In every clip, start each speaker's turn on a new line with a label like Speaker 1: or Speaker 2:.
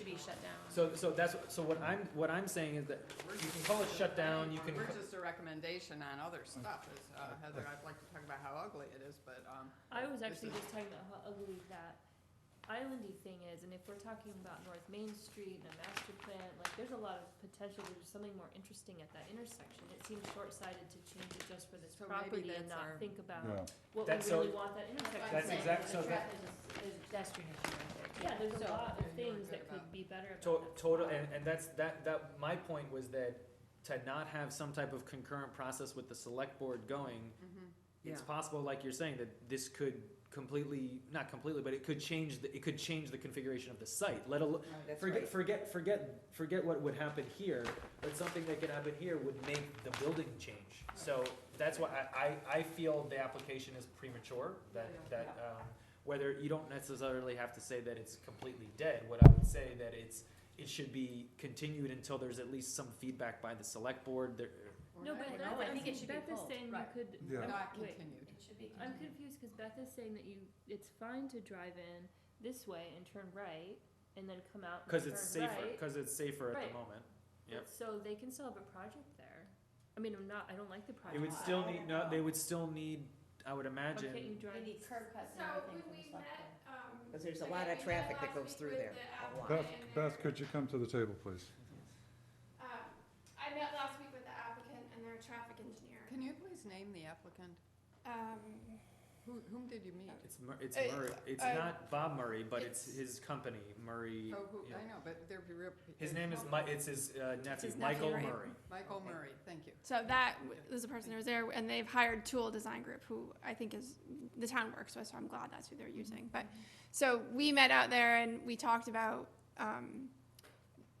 Speaker 1: shut down.
Speaker 2: So, so that's, so what I'm, what I'm saying is that
Speaker 3: We're
Speaker 2: you can
Speaker 3: just-
Speaker 2: call it shutdown, you can,
Speaker 3: We're just a recommendation on other stuff, is, uh, Heather, I'd like to talk about how ugly it is, but, um,
Speaker 4: I was
Speaker 3: This
Speaker 4: actually
Speaker 3: is-
Speaker 4: just talking about how ugly that islandy thing is, and if we're talking about North Main Street and a master plan, like, there's a lot of potential, there's something more interesting at that intersection. It seems short-sighted to change it just for this
Speaker 3: So maybe
Speaker 4: property and
Speaker 3: that's our-
Speaker 4: not think
Speaker 5: Yeah.
Speaker 4: about what we
Speaker 2: That's so-
Speaker 4: really want that intersection.
Speaker 2: That's
Speaker 4: to be.
Speaker 2: exact- so that-
Speaker 1: There's a pedestrian issue right there.
Speaker 4: Yeah, there's
Speaker 1: So-
Speaker 4: a lot
Speaker 3: you're
Speaker 4: of things
Speaker 3: good
Speaker 4: that could
Speaker 3: about-
Speaker 4: be better
Speaker 2: to-
Speaker 4: about that.
Speaker 2: total, and, and that's, that, that, my point was that to not have some type of concurrent process with the select board going,
Speaker 3: mhm.
Speaker 2: it's
Speaker 3: Yeah.
Speaker 2: possible, like you're saying, that this could completely, not completely, but it could change, the it could change the configuration of the site, let alone, Forget, forget, forget, forget what would happen here, but something that could happen here would make the building change. So that's why I, I, I feel the application is premature, that, that, um, whether, you don't necessarily have to say that it's completely dead. What I would say that it's, it should be continued until there's at least some feedback by the select board, there,
Speaker 3: We're
Speaker 4: No,
Speaker 3: not-
Speaker 4: but
Speaker 3: we're
Speaker 4: Beth
Speaker 1: I think it
Speaker 4: is,
Speaker 1: should be
Speaker 4: Beth is
Speaker 1: pulled,
Speaker 4: saying you
Speaker 3: right.
Speaker 4: could,
Speaker 5: Yeah.
Speaker 4: I'm-
Speaker 3: Not
Speaker 4: wait.
Speaker 3: continued.
Speaker 1: It should be
Speaker 4: I'm
Speaker 1: continued.
Speaker 4: confused because Beth is saying that you, it's fine to drive in this way and turn right and then come out and
Speaker 2: cause
Speaker 4: turn
Speaker 2: it's safer,
Speaker 4: right.
Speaker 2: cause it's safer at
Speaker 4: Right.
Speaker 2: the moment. Yep.
Speaker 4: So they can still have a project there. I mean, I'm not, I don't like the
Speaker 2: It
Speaker 4: project.
Speaker 2: would still need, no, they would still need, I would
Speaker 4: Why
Speaker 2: imagine.
Speaker 4: can't you
Speaker 1: They
Speaker 4: drive?
Speaker 1: need curb cuts and
Speaker 6: So
Speaker 1: everything
Speaker 6: when
Speaker 1: from the
Speaker 6: we
Speaker 1: select board.
Speaker 6: met, um.
Speaker 7: Because there's a
Speaker 6: again,
Speaker 7: lot of
Speaker 6: we met
Speaker 7: traffic that
Speaker 6: last
Speaker 7: goes
Speaker 6: week
Speaker 7: through
Speaker 6: with
Speaker 7: there,
Speaker 6: the
Speaker 7: a lot.
Speaker 5: Beth,
Speaker 6: applicant and
Speaker 5: Beth,
Speaker 6: their-
Speaker 5: could you come to the table, please?
Speaker 6: um, I met last week with the applicant and their traffic engineer.
Speaker 3: Can you please name the applicant?
Speaker 6: Um,
Speaker 3: Who, whom did you meet?
Speaker 2: It's Mur- it's
Speaker 6: Uh,
Speaker 2: Murray. It's
Speaker 6: uh,
Speaker 2: not Bob Murray, but it's,
Speaker 6: it's-
Speaker 2: his company, Murray.
Speaker 3: Oh, who,
Speaker 2: yeah.
Speaker 3: I know, but they're.
Speaker 2: His name is Mi- it's his uh, nephew,
Speaker 1: his nephew,
Speaker 2: Michael
Speaker 1: right?
Speaker 2: Murray.
Speaker 3: Michael
Speaker 7: Okay.
Speaker 3: Murray, thank you.
Speaker 6: So that w- was the person that was there, and they've hired Tool Design Group, who I think is, the town works with, so I'm glad that's who they're
Speaker 7: Mm-hmm.
Speaker 6: using. But, so we met out there and we talked about, um,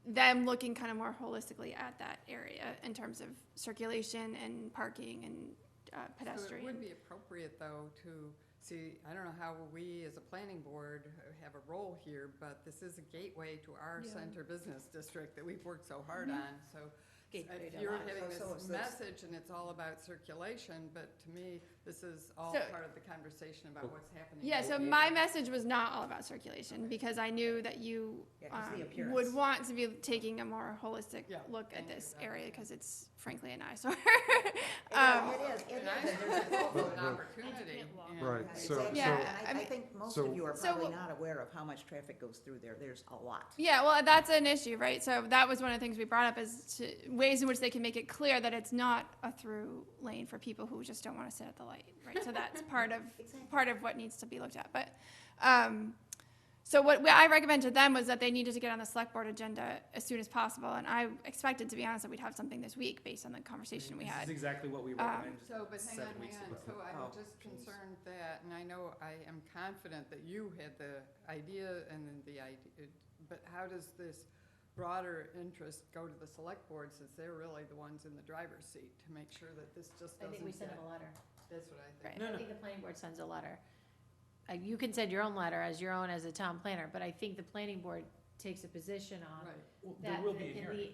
Speaker 6: them looking kind of more holistically at that area in terms of circulation and parking and uh,
Speaker 3: So it would
Speaker 6: pedestrian.
Speaker 3: be appropriate, though, to, see, I don't know how we, as a planning board, have a role here, but this is a gateway to our
Speaker 4: Yeah. Mm-hmm.
Speaker 3: center business district that we've worked so hard on, so
Speaker 7: Gateway
Speaker 3: if
Speaker 7: to
Speaker 3: you're
Speaker 7: life.
Speaker 3: having
Speaker 7: So- so it's-
Speaker 3: this message and it's all about circulation, but to me, this is all
Speaker 6: So-
Speaker 3: part of the conversation about what's happening.
Speaker 6: Yeah, so
Speaker 3: in the
Speaker 6: my
Speaker 3: neighborhood.
Speaker 6: message was not all about circulation, because I knew that you
Speaker 7: Yeah, 'cause the
Speaker 6: um,
Speaker 7: appearance.
Speaker 6: would want to be taking a more holistic
Speaker 3: Yeah,
Speaker 6: look at
Speaker 3: thank you,
Speaker 6: this
Speaker 3: that
Speaker 6: area,
Speaker 3: makes sense.
Speaker 6: because it's frankly an eyesore.
Speaker 7: Yeah,
Speaker 6: Um,
Speaker 7: It is, it
Speaker 3: And I
Speaker 7: is, and there's a
Speaker 3: think
Speaker 7: whole-
Speaker 3: it's
Speaker 5: But-
Speaker 3: an
Speaker 5: but-
Speaker 3: opportunity.
Speaker 4: walk.
Speaker 3: and-
Speaker 5: Right,
Speaker 7: Yeah,
Speaker 5: so,
Speaker 7: exactly.
Speaker 5: so,
Speaker 6: Yeah,
Speaker 7: I, I
Speaker 6: I'm-
Speaker 7: think most
Speaker 5: so-
Speaker 7: of you are
Speaker 6: So
Speaker 7: probably
Speaker 6: wh-
Speaker 7: not aware of how much traffic goes through there, there's a lot.
Speaker 6: Yeah, well, that's an issue, right? So that was one of the things we brought up is to, ways in which they can make it clear that it's not a through lane for people who just don't want to sit at the light, right? So that's part of
Speaker 7: Exactly.
Speaker 6: part of what needs to be looked at. But um, so what, what I recommended to them was that they needed to get on the select board agenda as soon as possible, and I expected, to be honest, that we'd have something this week based on the conversation we
Speaker 2: This
Speaker 6: had.
Speaker 2: is exactly what we recommend.
Speaker 3: So, but hang on,
Speaker 2: seven weeks
Speaker 3: hang on,
Speaker 2: ago.
Speaker 3: so I'm
Speaker 7: Oh,
Speaker 3: just
Speaker 7: geez.
Speaker 3: concerned that, and I know I am confident that you had the idea and then the idea, but how does this broader interest go to the select board since they're really the ones in the driver's seat to make sure that this just
Speaker 1: I
Speaker 3: doesn't
Speaker 1: think we send
Speaker 3: get,
Speaker 1: them a letter.
Speaker 3: that's what I
Speaker 1: Right,
Speaker 3: think.
Speaker 2: No, no.
Speaker 1: I think the planning board sends a letter. Uh, you can send your own letter as your own as a town planner, but I think the planning board takes a position on
Speaker 3: Right,
Speaker 2: Well, there
Speaker 1: that
Speaker 2: will be a
Speaker 1: in
Speaker 2: hearing.
Speaker 1: the-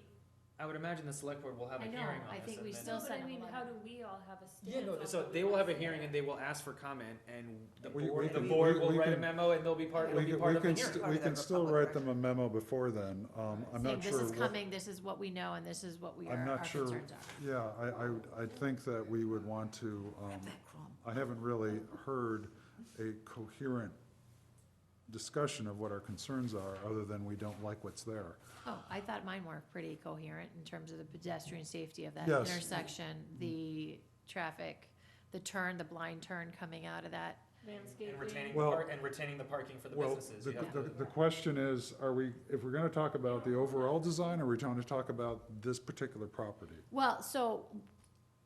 Speaker 2: I would imagine the select board will have a
Speaker 1: I know,
Speaker 2: hearing on
Speaker 1: I
Speaker 2: this.
Speaker 1: think
Speaker 2: and
Speaker 1: we
Speaker 2: then-
Speaker 1: still
Speaker 4: But
Speaker 1: send
Speaker 4: I
Speaker 1: them a
Speaker 4: mean,
Speaker 1: letter.
Speaker 4: how do we all have a
Speaker 2: Yeah,
Speaker 4: stance?
Speaker 2: no,
Speaker 4: on
Speaker 2: so
Speaker 4: what we
Speaker 2: they will
Speaker 4: want
Speaker 2: have a
Speaker 4: to
Speaker 2: hearing
Speaker 4: do?
Speaker 2: and they will ask for comment and the
Speaker 5: We- we
Speaker 2: board, the
Speaker 5: can-
Speaker 2: board
Speaker 5: we-
Speaker 2: will
Speaker 5: we
Speaker 2: write a
Speaker 5: can-
Speaker 2: memo and they'll be part, it'll
Speaker 5: we
Speaker 2: be
Speaker 5: can,
Speaker 2: part
Speaker 5: we
Speaker 2: of the
Speaker 5: can,
Speaker 2: hearing.
Speaker 5: st-
Speaker 7: Part
Speaker 5: we
Speaker 7: of the
Speaker 5: can still
Speaker 7: Republic
Speaker 5: write them a memo before then, um, I'm
Speaker 1: saying
Speaker 5: not sure
Speaker 1: this is
Speaker 5: what.
Speaker 1: coming, this is what we know, and this is what we
Speaker 5: I'm
Speaker 1: are,
Speaker 5: not
Speaker 1: our
Speaker 5: sure-
Speaker 1: concerns are.
Speaker 5: Yeah, I, I, would- I think that we would want to, um,
Speaker 7: That crumb.
Speaker 5: I haven't really heard a coherent discussion of what our concerns are, other than we don't like what's there.
Speaker 1: Oh, I thought mine were pretty coherent in terms of the pedestrian safety of that
Speaker 5: Yes.
Speaker 1: intersection, the traffic, the turn, the blind turn coming out of that.
Speaker 2: And retaining,
Speaker 4: Landscaping.
Speaker 2: the
Speaker 5: Well-
Speaker 2: par- and retaining the parking for the
Speaker 5: Well,
Speaker 2: businesses.
Speaker 5: the,
Speaker 2: you have
Speaker 5: the,
Speaker 2: to-
Speaker 5: the question is, are we, if we're gonna talk about the overall design, or we are trying to talk about this particular property?
Speaker 1: Well, so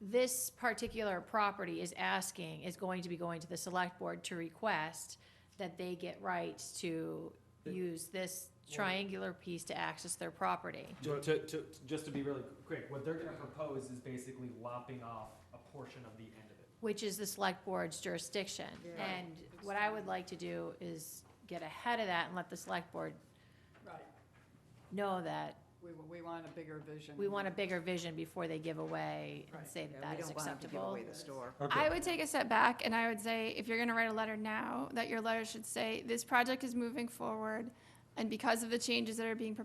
Speaker 1: this particular property is asking, is going to be going to the select board to request that they get rights to use this triangular piece to access their property.
Speaker 2: Ju- To, to, just to be really quick, what they're gonna propose is basically lopping off a portion of the end of it.
Speaker 1: which is the select board's jurisdiction.
Speaker 3: Yeah.
Speaker 1: And what I would like to do is get ahead of that and let the select board
Speaker 3: right,
Speaker 1: know that
Speaker 3: we, we want a bigger vision.
Speaker 1: we want a bigger vision before they give away and
Speaker 3: Right.
Speaker 1: say
Speaker 7: Yeah,
Speaker 1: that
Speaker 7: we
Speaker 1: that is
Speaker 7: don't want 'em to give
Speaker 1: acceptable.
Speaker 7: away the store.
Speaker 5: Okay,
Speaker 6: I would take a step back and I would say, if you're gonna write a letter now, that your letter should say, this project is moving forward, and because of the changes that are being proposed